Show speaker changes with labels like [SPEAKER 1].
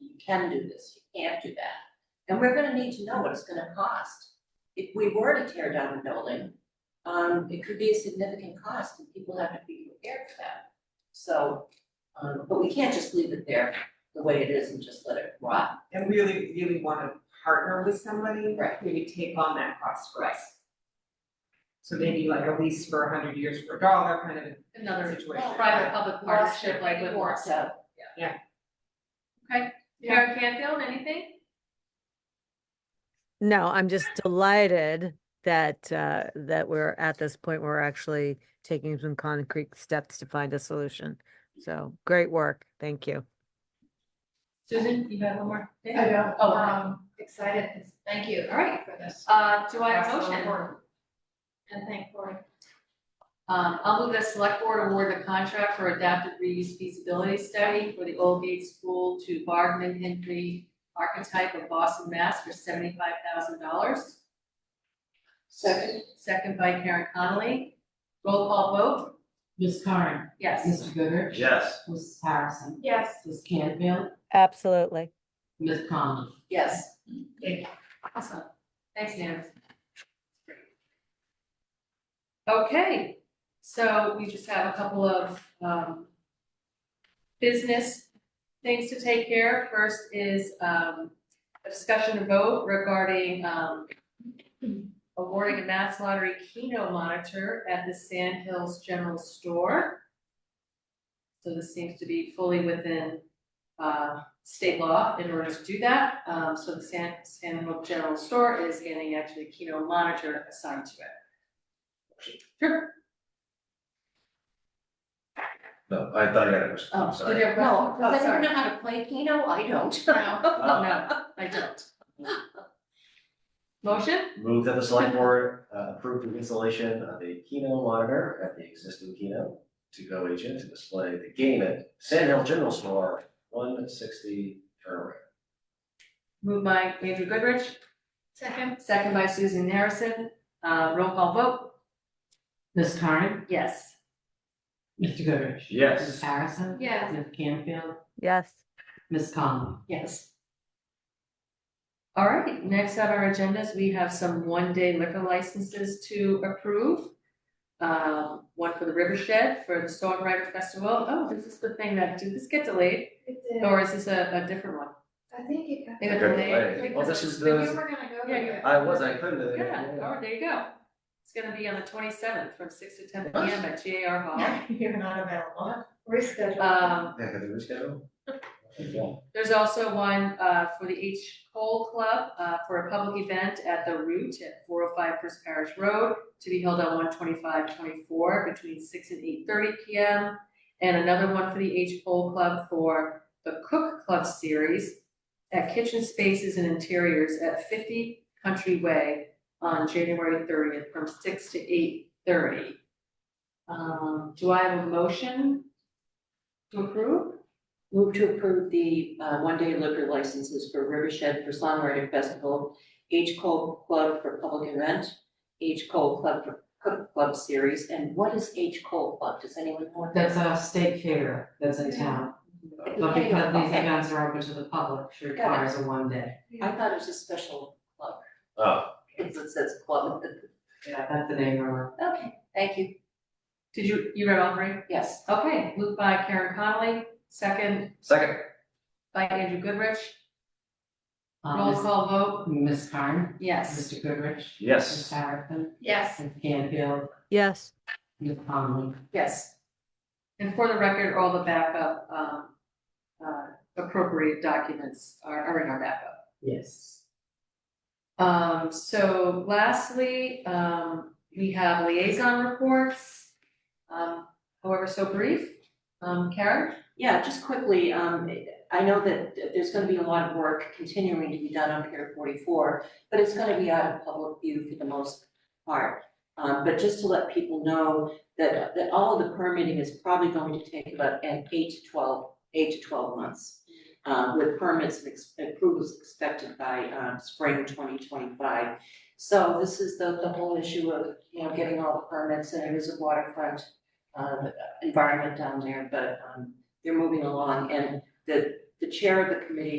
[SPEAKER 1] you can do this, you can't do that. And we're gonna need to know what it's gonna cost. If we were to tear down a building, um, it could be a significant cost and people have to be prepared for that. So, um, but we can't just leave it there the way it is and just let it rot.
[SPEAKER 2] and really, really wanna partner with somebody
[SPEAKER 1] Right.
[SPEAKER 2] who would take on that cost for us. So maybe like a lease for a hundred years for a dollar kind of
[SPEAKER 3] another
[SPEAKER 2] situation.
[SPEAKER 3] private-public partnership like with
[SPEAKER 1] Lost
[SPEAKER 3] Morrison.
[SPEAKER 1] out.
[SPEAKER 3] Karen Canfield, anything?
[SPEAKER 4] No, I'm just delighted that, uh, that we're at this point where we're actually taking some concrete steps to find a solution. So great work. Thank you.
[SPEAKER 3] Susan, you have one more? thing?
[SPEAKER 5] I know,
[SPEAKER 3] Oh, okay.
[SPEAKER 5] um, excited, thank you.
[SPEAKER 3] All right.
[SPEAKER 5] For this.
[SPEAKER 3] uh, do I have a
[SPEAKER 5] That's so
[SPEAKER 3] motion?
[SPEAKER 5] important. And thank Cory.
[SPEAKER 3] Um, I'll move that select board award the contract for adaptive reuse feasibility study for the Old Gate School to Bargman Henry Archetype of Boston, Mass. for seventy-five thousand dollars.
[SPEAKER 1] Second.
[SPEAKER 3] Second by Karen Connolly. Roll call vote,
[SPEAKER 6] Ms. Curran,
[SPEAKER 3] yes.
[SPEAKER 6] Mr. Goodrich,
[SPEAKER 7] Yes.
[SPEAKER 6] Mrs. Harrison,
[SPEAKER 5] Yes.
[SPEAKER 6] Ms. Canfield,
[SPEAKER 4] Absolutely.
[SPEAKER 6] Ms. Conlon.
[SPEAKER 3] Yes. Awesome. Thanks, Nan. Okay, so we just have a couple of, um, business things to take care of. First is, um, a discussion and vote regarding, um, awarding a mass lottery Keno monitor at the Sand Hills General Store. So this seems to be fully within, uh, state law in order to do that. Um, so the San, San Diego General Store is getting actually a Keno monitor assigned to it. Sure.
[SPEAKER 7] No, I thought I had a question, I'm
[SPEAKER 3] Oh, did
[SPEAKER 7] sorry.
[SPEAKER 3] you have a
[SPEAKER 1] No, does
[SPEAKER 3] question? Oh,
[SPEAKER 1] anyone
[SPEAKER 3] sorry.
[SPEAKER 1] know how to play Keno? I don't.
[SPEAKER 3] No,
[SPEAKER 7] Uh,
[SPEAKER 3] no, I don't. Motion?
[SPEAKER 7] Move that the select board uh, approve the installation of a Keno monitor at the existing Keno to go agent to display the game at Sand Hill General Store, one sixty turnaround.
[SPEAKER 3] Moved by Andrew Goodrich,
[SPEAKER 5] Second?
[SPEAKER 3] second by Susan Harrison. Uh, roll call vote?
[SPEAKER 6] Ms. Curran,
[SPEAKER 3] Yes.
[SPEAKER 6] Mr. Goodrich.
[SPEAKER 7] Yes.
[SPEAKER 6] Mrs. Harrison.
[SPEAKER 5] Yes.
[SPEAKER 6] Ms. Canfield,
[SPEAKER 4] Yes.
[SPEAKER 6] Ms. Conlon.
[SPEAKER 3] Yes. All right, next on our agendas, we have some one-day liquor licenses to approve. Um, one for the Rivershed for the Songwriter Festival. Oh, this is the thing that, did this get delayed?
[SPEAKER 5] It did.
[SPEAKER 3] Or is this a, a different one?
[SPEAKER 5] I think it got.
[SPEAKER 3] They got
[SPEAKER 7] Got
[SPEAKER 3] delayed?
[SPEAKER 7] delayed. Well, this is
[SPEAKER 5] Because
[SPEAKER 7] the-
[SPEAKER 5] We were gonna go
[SPEAKER 3] Yeah, you-
[SPEAKER 5] there.
[SPEAKER 7] I was, I couldn't. uh,
[SPEAKER 3] Yeah, oh, there you go. It's gonna be on the twenty-seventh from six to ten P M at G A R Hall.
[SPEAKER 5] You're not available. Reschedule.
[SPEAKER 3] Um,
[SPEAKER 7] Yeah, got the reschedule? Okay.
[SPEAKER 3] There's also one uh for the H Cole Club uh for a public event at the Root at 405 First Parish Road to be held on 125-24 between six and eight thirty P M. And another one for the H Cole Club for the Cook Club Series at Kitchen Spaces and Interiors at fifty Country Way on January thirtieth from six to eight thirty. Um, do I have a motion to approve?
[SPEAKER 1] Move to approve the uh, one-day liquor licenses for Rivershed for Songwriting Festival, H Cole Club for Public Event, H Cole Club for Cook Club Series, and what is H Cole Club? Does anyone know? what that
[SPEAKER 6] That's a state fair that's in town,
[SPEAKER 1] is?
[SPEAKER 6] but because these
[SPEAKER 1] Okay.
[SPEAKER 6] events are open to the public, it
[SPEAKER 1] Got it.
[SPEAKER 6] requires a one day.
[SPEAKER 1] I thought it was a special club,
[SPEAKER 7] Oh,
[SPEAKER 1] because it says club.
[SPEAKER 6] Yeah, that's the name of it.
[SPEAKER 1] Okay, thank you,
[SPEAKER 3] Did you, you read all three?
[SPEAKER 1] yes.
[SPEAKER 3] Okay, moved by Karen Connolly, second
[SPEAKER 7] second,
[SPEAKER 3] by Andrew Goodrich.
[SPEAKER 6] Uh,
[SPEAKER 3] Roll
[SPEAKER 6] Ms.
[SPEAKER 3] call vote,
[SPEAKER 6] Ms. Curran,
[SPEAKER 3] yes.
[SPEAKER 6] Mr. Goodrich. Ms.
[SPEAKER 7] yes.
[SPEAKER 6] Harrison,
[SPEAKER 5] Yes.
[SPEAKER 6] Ms. Canfield,
[SPEAKER 4] Yes.
[SPEAKER 6] Ms. Conlon.
[SPEAKER 3] Yes. And for the record, all the backup, um, uh, appropriate documents are, are in our backup.
[SPEAKER 6] Yes.
[SPEAKER 3] Um, so lastly, um, we have liaison reports, um, however so brief. Um, Karen?
[SPEAKER 1] Yeah, just quickly, um, I know that there's gonna be a lot of work continuing to be done on Pier forty-four, but it's gonna be out of public view for the most part. Um, but just to let people know that, that all of the permitting is probably going to take about an eight to twelve, eight to twelve months. uh, with permits and ex- approvals expected by, um, spring twenty twenty-five. So this is the, the whole issue of, you know, getting all the permits, and it is a waterfront, um, environment down there, but, um, they're moving along, and the, the chair of the committee